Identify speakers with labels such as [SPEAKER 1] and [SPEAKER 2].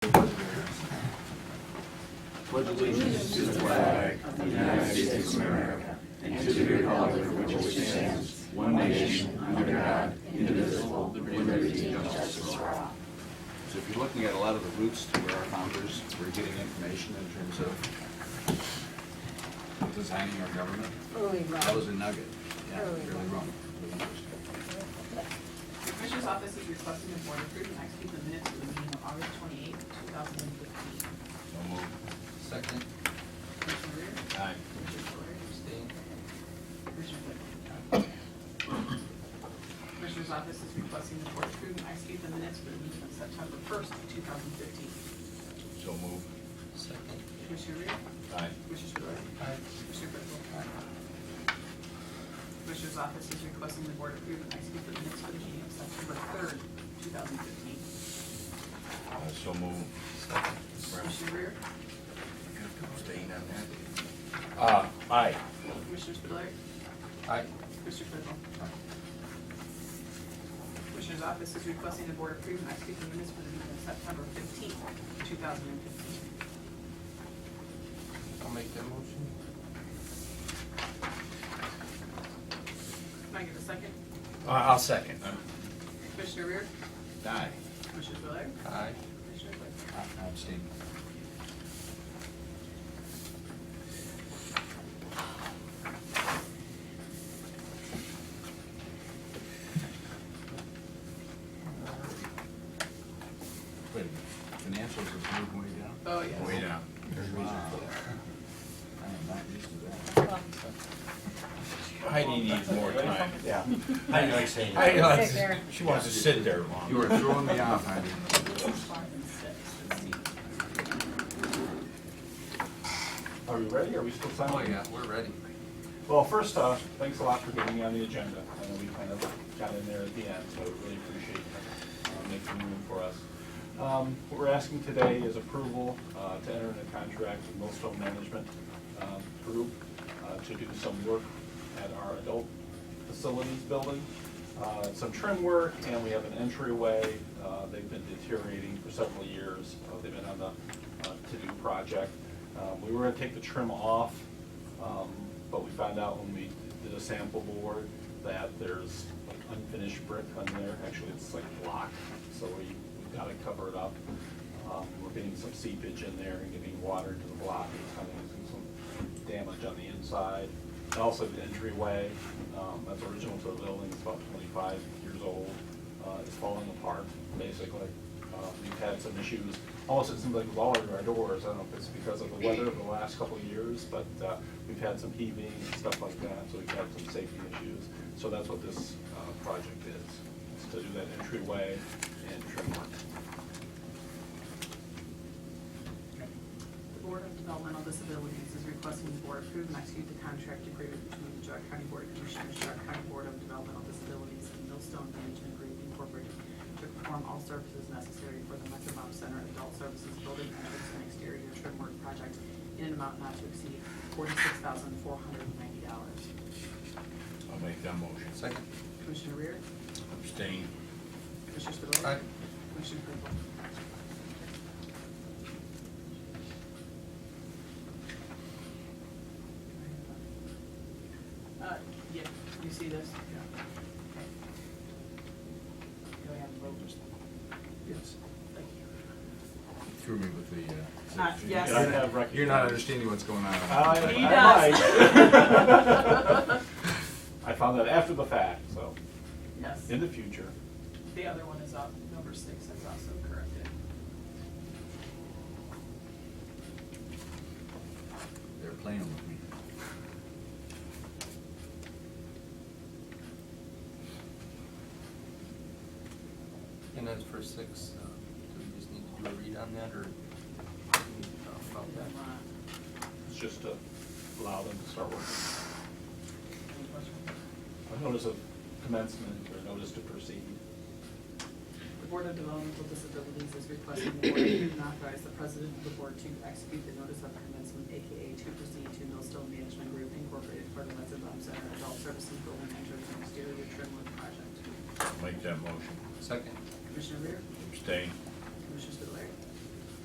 [SPEAKER 1] So if you're looking at a lot of the roots to where our founders were getting information in terms of designing our government,
[SPEAKER 2] Early
[SPEAKER 1] that was a
[SPEAKER 2] Rome.
[SPEAKER 1] nugget. Yeah,
[SPEAKER 2] Early
[SPEAKER 1] really
[SPEAKER 2] Rome.
[SPEAKER 1] wrong. Really interesting.
[SPEAKER 3] The Commissioner's Office is requesting the Board approve and execute the minutes for the meeting of August twenty-eighth, two thousand and fifteen.
[SPEAKER 1] So moved.
[SPEAKER 4] Second,
[SPEAKER 3] Commissioner Rea?
[SPEAKER 1] Aye.
[SPEAKER 3] Commissioner Story?
[SPEAKER 4] abstain,
[SPEAKER 3] Commissioner Claypool? Commissioner's Office is requesting the Board approve and execute the minutes for the meeting of September first, two thousand and fifteen.
[SPEAKER 1] So moved.
[SPEAKER 4] second,
[SPEAKER 3] Commissioner Rea?
[SPEAKER 1] Aye.
[SPEAKER 3] Commissioner Story? Commissioner Claypool? Commissioner's Office is requesting the Board approve and execute the minutes for the meeting of September third, two thousand and fifteen.
[SPEAKER 1] Uh, So moved.
[SPEAKER 4] second,
[SPEAKER 3] Commissioner Rea?
[SPEAKER 1] Staying on that.
[SPEAKER 5] Uh, aye.
[SPEAKER 3] Commissioner Spudler?
[SPEAKER 4] aye,
[SPEAKER 3] Commissioner Claypool? Commissioner's office is requesting the board approve and execute the minutes for the meeting of September fifteenth, two thousand and fifteen.
[SPEAKER 4] I'll make that motion.
[SPEAKER 3] Can I get a second?
[SPEAKER 5] Uh, I'll second.
[SPEAKER 3] Commissioner Rear?
[SPEAKER 1] Aye.
[SPEAKER 3] Commissioner Spudler?
[SPEAKER 4] Aye,
[SPEAKER 3] Commissioner Claypool?
[SPEAKER 1] I- I'm staying. Wait a minute. Financials are moving way down?
[SPEAKER 3] Oh, yes.
[SPEAKER 1] Way down. There's a reason for that. I am not used to that.
[SPEAKER 5] Heidi needs more time.
[SPEAKER 1] Yeah.
[SPEAKER 5] Heidi likes Heidi likes, she wants to sit there long.
[SPEAKER 1] You are throwing me off, Heidi.
[SPEAKER 3] Five and six, let's see.
[SPEAKER 6] Are we ready? Are we still
[SPEAKER 4] oh
[SPEAKER 6] silent?
[SPEAKER 4] yeah, we're ready.
[SPEAKER 6] Well, first off, thanks a lot for getting me on the agenda. I know we kind of got in there at the end, so really appreciate you uh, making room for us. Um, What we're asking today is approval uh, to enter into contract with Millstone Management um, Group uh, to do some work at our adult facilities building. Uh, Some trim work, and we have an entryway. Uh, They've been deteriorating for several years. Uh, They've been on the uh, to-do project. Uh, We were gonna take the trim off um, But we found out when we did a sample board that there's like unfinished brick on there, actually it's like block, so we, we gotta cover it up. Um, We're getting some seepage in there and getting water into the block, it's kind of using some damage on the inside. And also the entryway, um, that's original to the building, it's about twenty-five years old, uh, it's falling apart, basically. Uh, We've had some issues, almost it seems like with all of our doors, I don't know if it's because of the weather over the last couple of years, but uh, we've had some heaving and stuff like that, so we've had some safety issues. So that's what this uh, project is, is to do that entryway and trim work.
[SPEAKER 3] The Board of Developmental Disabilities is requesting the board approve and execute the contract agreement between the Stark County Board of Commissioners, Stark County Board of Developmental Disabilities, and Millstone Management Group Incorporated to perform all services necessary for the Metro Center Adult Services Building Entrance and Exterior Trim Work Project in an amount not to exceed forty-six thousand four hundred and ninety dollars.
[SPEAKER 5] I'll make that motion.
[SPEAKER 4] Second,
[SPEAKER 3] Commissioner Reer?
[SPEAKER 5] Abstain.
[SPEAKER 3] Commissioner Spudler?
[SPEAKER 4] aye,
[SPEAKER 3] Commissioner Claypool? Uh, yeah, you see this? Yeah. Do I have a vote?
[SPEAKER 1] Yes.
[SPEAKER 3] Thank you.
[SPEAKER 1] Threw me with the, uh.
[SPEAKER 3] Uh, yes.
[SPEAKER 6] I don't have Oh, record-
[SPEAKER 1] You're not understanding what's going on.
[SPEAKER 6] I-
[SPEAKER 3] He
[SPEAKER 6] I
[SPEAKER 3] does.
[SPEAKER 6] might. I found that after the fact, so
[SPEAKER 3] Yes,
[SPEAKER 6] in the future.
[SPEAKER 3] the other one is up, number six is also corrected.
[SPEAKER 1] They're playing with me.
[SPEAKER 4] and then for six, uh, do we just need to do a read on that, or? we need to talk about
[SPEAKER 3] If
[SPEAKER 4] that?
[SPEAKER 3] you want,
[SPEAKER 6] It's just to allow them to start working.
[SPEAKER 3] any questions?
[SPEAKER 6] A notice of commencement or notice to proceed.
[SPEAKER 3] The Board of Developmental Disabilities is requesting the board approve and authorize the president of the board to execute the notice of commencement, AKA to proceed to Millstone Management Group Incorporated for the Hudson Bump Center Adult Services Building Entrance and Exterior Trim Work Project.
[SPEAKER 5] Make that motion.
[SPEAKER 4] Second,
[SPEAKER 3] Commissioner Reer?
[SPEAKER 5] Abstain.